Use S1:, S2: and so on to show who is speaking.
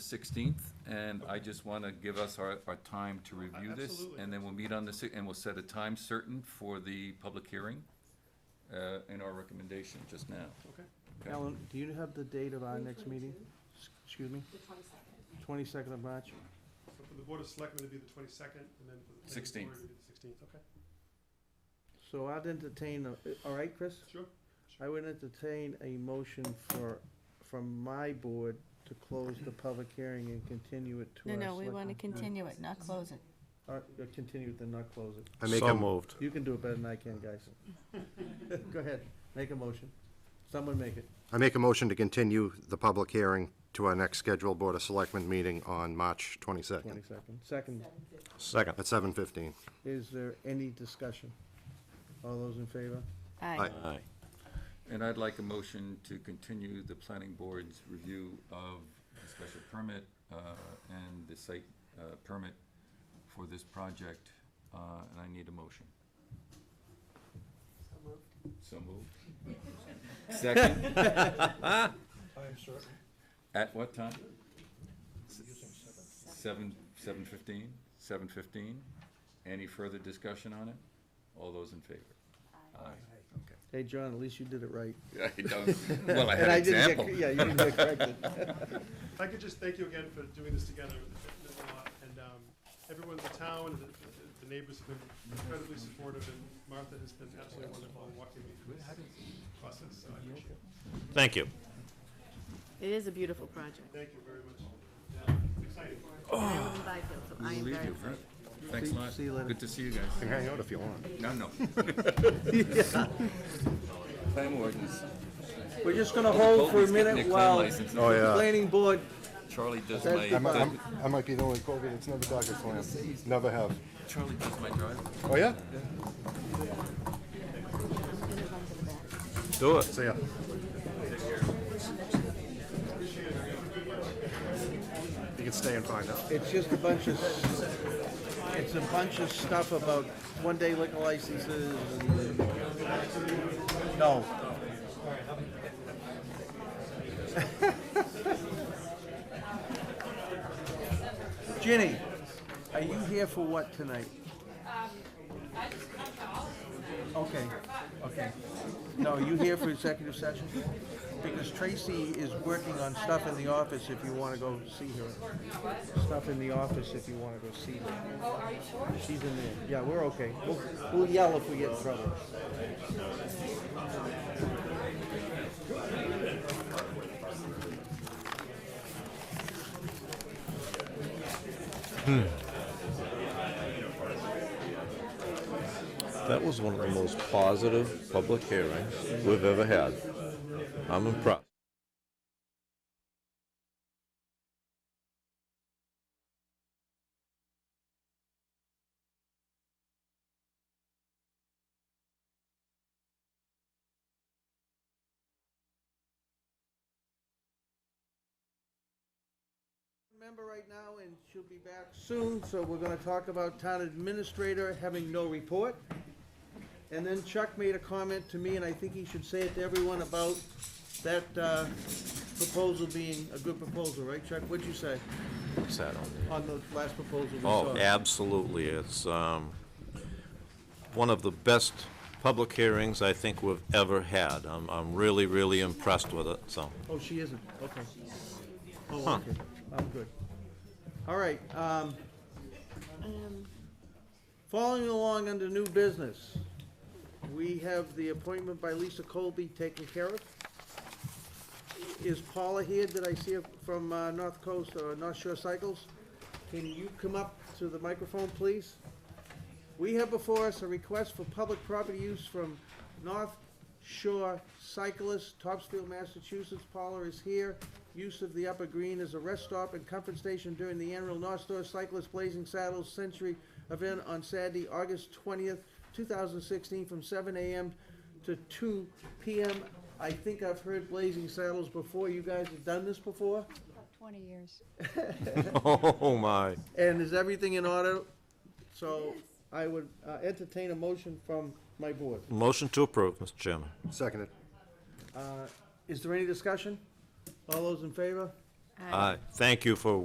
S1: sixteenth, and I just wanna give us our, our time to review this.
S2: Absolutely.
S1: And then we'll meet on the, si- and we'll set a time certain for the public hearing, uh, and our recommendation just now.
S2: Okay.
S1: Okay.
S3: Alan, do you have the date of our next meeting?
S4: 3:22,
S3: S- Excuse me?
S4: The twenty-second.
S3: Twenty-second of March?
S2: So for the Board of Selectmen, it'd be the twenty-second, and then for the. planning board,
S1: 16th.
S2: it'd be the Sixteenth, okay,
S3: So I'd entertain, a- uh, all right, Chris?
S2: sure.
S3: I would entertain a motion for, from my board to close the public hearing and continue it to
S5: No,
S3: our
S5: no, we want to
S3: selectmen.
S5: continue it, not close it.
S3: All right, uh, Continue it, then not close it.
S6: I make a moved.
S3: You can do it better than I can, guys. Go ahead, make a motion. Someone make it.
S6: I make a motion to continue the public hearing to our next scheduled Board of Selectmen meeting on March 22nd
S3: Twenty-second. Second,
S6: Second. At 7:15.
S3: is there any discussion? All those in favor?
S5: Aye.
S7: Aye.
S1: And I'd like a motion to continue the planning board's review of the special permit, uh, and the site, uh, permit for this project, uh, and I need a motion. So moved. Second,
S8: I'm certain,
S1: at what time? Seven, seven fifteen, seven fifteen? Any further discussion on it? All those in favor? Aye.
S3: Hey, John, at least you did it right.
S1: Okay. I don't- Well, I had an
S3: And I didn't get-
S1: example.
S3: Yeah, you didn't get corrected.
S2: If I could just thank you again for doing this together, it meant a lot, and, um, everyone in the town, the, the- the neighbors have been incredibly supportive, and Martha has been absolutely wonderful in walking me through this process, so I appreciate it.
S7: Thank you.
S9: It is a beautiful project.
S2: Thank you very much. Yeah, exciting.
S9: I own Byfield, so I
S1: We'll
S9: am
S1: leave
S9: very
S1: you,
S9: excited.
S1: huh? Thanks a lot.
S3: See you later.
S1: Good to see you guys.
S6: Hang out if you want.
S1: No, no. Clam wardens.
S3: We're just gonna hold Oh, for a
S1: Colby's getting
S3: minute
S1: a clam
S3: while the
S1: license.
S6: Oh, yeah.
S3: planning board
S1: Charlie does
S3: That's the
S1: my,
S3: button.
S6: I'm- I might be the only Colby that's never dogged a plan. Never have.
S1: Charlie does my drive.
S6: Oh, yeah?
S7: Do it.
S6: See ya. You can stay and find out.
S3: It's just a bunch of, it's a bunch of stuff about one-day liquor licenses and, no. Ginny, are you here for what tonight? Okay, okay. No, you here for executive session? Because Tracy is working on stuff in the office if you wanna go see her stuff in the office if you want to go see them. Oh, are you sure? She's in there. Yeah, we're okay. We'll, we'll yell if we get in trouble.
S7: That was one of the most positive public hearings we've ever had. I'm impressed.
S3: Member right now, and she'll be back soon, so we're gonna talk about town administrator having no report. And then Chuck made a comment to me, and I think he should say it to everyone about that, uh, proposal being a good proposal, right, Chuck? What'd you say
S7: What's that on there?
S3: on the last proposal we saw?
S7: Oh, absolutely. It's um, one of the best public hearings I think we've ever had. I'm I'm really, really impressed with it, so.
S3: Oh, she isn't, okay. Oh, okay, I'm good. All right, um, following along under new business, we have the appointment by Lisa Colby taken care of. Is Paula here? Did I see her from, uh, North Coast or North Shore Cycles? Can you come up to the microphone, please? We have before us a request for public property use from North Shore Cyclists, Topsfield, Massachusetts. Paula is here. Use of the Upper Green as a rest stop and comfort station during the annual North Shore Cyclists Blazing Saddles Century event on Saturday, August twentieth, two thousand sixteen, from seven AM to two PM. I think I've heard Blazing Saddles before. You guys have done this before?
S4: Twenty years.
S7: Oh, my.
S3: And is everything in order? So I would uh, entertain a motion from my board.
S7: Motion to approve, Mr. Chairman.
S6: Seconded.
S3: Is there any discussion? All those in favor?
S7: Aye. Thank you for